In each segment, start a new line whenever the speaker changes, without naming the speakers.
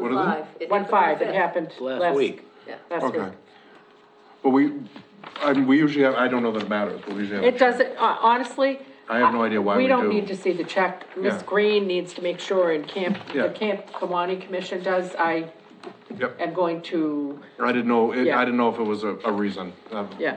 What is it?
Five. It
One
happened
five,
the
it
fifth.
happened.
Last week.
Yeah.
Last
Okay.
week.
But we, I mean, we usually have, I don't know that it matters, but we usually have.
It doesn't, uh, honestly.
I have no idea why we
don't
do.
need to see the check. Miss
Yeah.
Green needs to make sure and Camp,
Yeah.
the Camp Kawani Commission does. I
Yep,
am going to,
I didn't know, it-
Yeah.
I didn't know if it was a, a reason. Um,
yeah.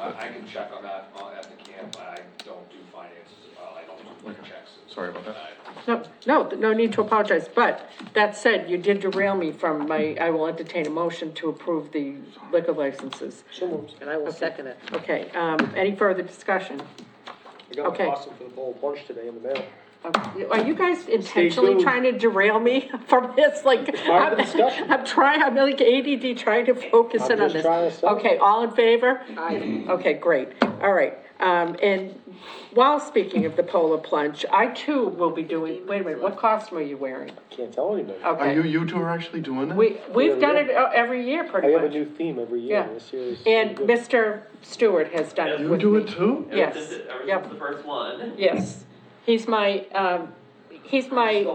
I, I can check on that uh, at the camp, I don't do finances at all, I don't do like checks. and-
Sorry about that.
No, no, no need to apologize, but that said, you did derail me from my, I will entertain a motion to approve the liquor licenses.
So moved, and I will second it.
Okay, um, any further discussion?
I got
Okay.
a possum for the bowl of punch today in the mail.
Uh, Are you guys intentionally
tuned.
trying to derail me from this, like?
part of
I'm-
the discussion.
I'm trying, I'm like ADD trying to focus
I'm
in on
just
this.
trying to sell it.
Okay, all in favor? Aye. Okay, great, all right, um, and while speaking of the polar plunge, I too will be doing, wait a minute, what costume are you wearing?
Can't tell anybody.
Are you,
Okay,
you two are actually doing it?
we, we've done
yeah.
it uh, every year
I
pretty much.
have a new theme every year,
Yeah.
this year is.
And Mr. Stewart has done it
You
with
do it
me.
too?
Yes.
This is- ever
Yep.
since the first one.
Yes, he's my, um, he's my,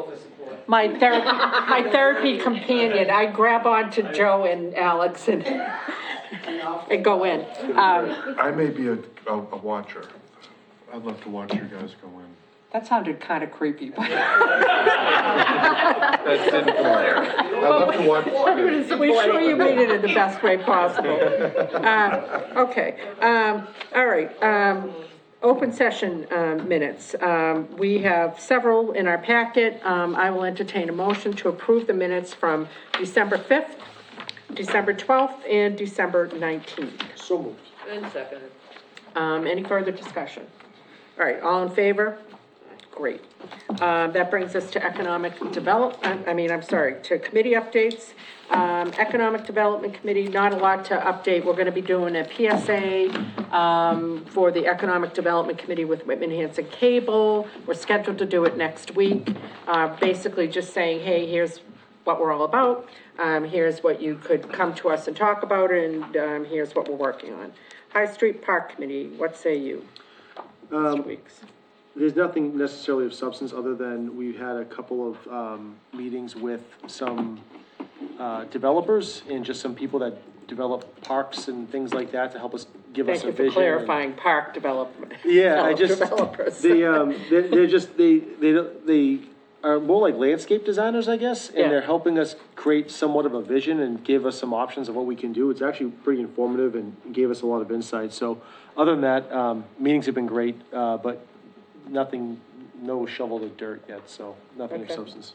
my therapy, my therapy companion. I grab on to Joe and Alex and, and go in. Um,
I may be a, a a watcher. I'd love to watch you guys go in.
that sounded kind of creepy, but
That didn't come out. I'd love to watch. you guys.
we sure you made it in the best way possible. Um, okay, um, all right, um, open session, um, minutes. Um, we have several in our packet. Um, I will entertain a motion to approve the minutes from December fifth, December twelfth, and December nineteenth.
So moved.
And second it.
Um, any further discussion? All right, all in favor? Great. Um, that brings us to economic development, I mean, I'm sorry, to committee updates. Um, Economic Development Committee, not a lot to update. We're gonna be doing a PSA, um, for the Economic Development Committee with Whitman Hanson Cable. We're scheduled to do it next week. Uh, basically just saying, hey, here's what we're all about. Um, here's what you could come to us and talk about, and, um, here's what we're working on. High Street Park Committee, what say you? Mr. Weeks?
There's nothing necessarily of substance, other than we had a couple of, um, meetings with some, uh, developers and just some people that develop parks and things like that to help us, give us
Thank
a
you
vision.
for
and-
clarifying park development.
Yeah, I
develop-
just,
Developers.
they, um, they're, they're just, they, they, don't- they are more like landscape designers, I guess,
Yeah.
and they're helping us create somewhat of a vision and give us some options of what we can do. It's actually pretty informative and gave us a lot of insight, so, other than that, um, meetings have been great, uh, but nothing, no shovel of dirt yet, so, nothing of
Okay.
substance.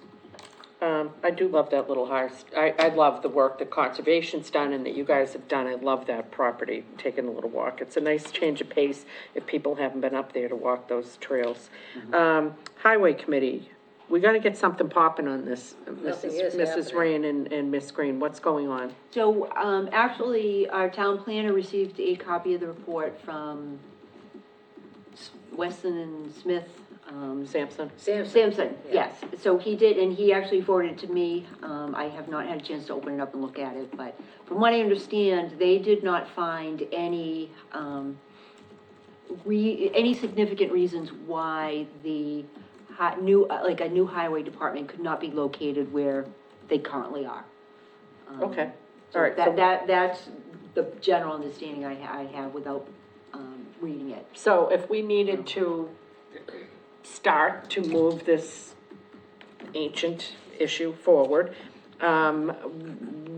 Um, I do love that little house. I, I love the work that conservation's done and that you guys have done. I love that property, taking a little walk. It's a nice change of pace if people haven't been up there to walk those trails.
Mm-hmm.
Um, Highway Committee, we gotta get something popping on this,
Nothing
Mrs.
is
Mrs.
happening.
Rain and, and Miss Green, what's going on?
So, um, actually, our town planner received a copy of the report from S- Weston and Smith, um,
Sampson?
Samson.
Sampson, yes. So he did, and he actually forwarded it to me. Um, I have not had a chance to open it up and look at it, but from what I understand, they did not find any, um, re, any significant reasons why the hi, new, uh, like a new highway department could not be located where they currently are. Um,
Okay,
so
all right. so-
That, that, that's the general understanding I, ha- I have without, um, reading it.
So if we needed to start to move this ancient issue forward, um,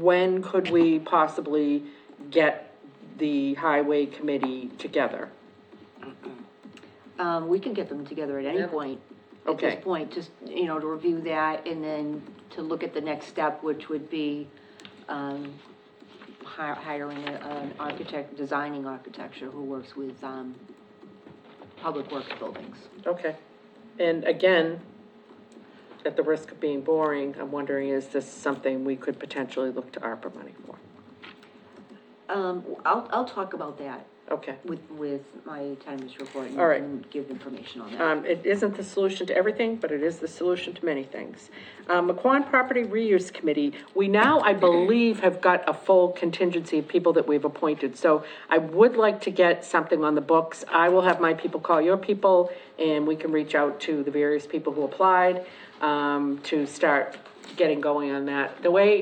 when could we possibly get the highway committee together?
Um, we can get them together at any point. At
Okay.
this point, just, you know, to review that and then to look at the next step, which would be, um, hi- hiring a- an architect, designing architecture who works with, um, public works buildings.
Okay, and again, at the risk of being boring, I'm wondering, is this something we could potentially look to ARPA money for?
Um, I'll, I'll talk about that
Okay,
with, with my town administrator report and-
All right.
and give information on that.
um, it isn't the solution to everything, but it is the solution to many things. Um, McQuon Property Reuse Committee, we now, I believe, have got a full contingency of people that we've appointed. So I would like to get something on the books. I will have my people call your people, and we can reach out to the various people who applied, um, to start getting going on that. The way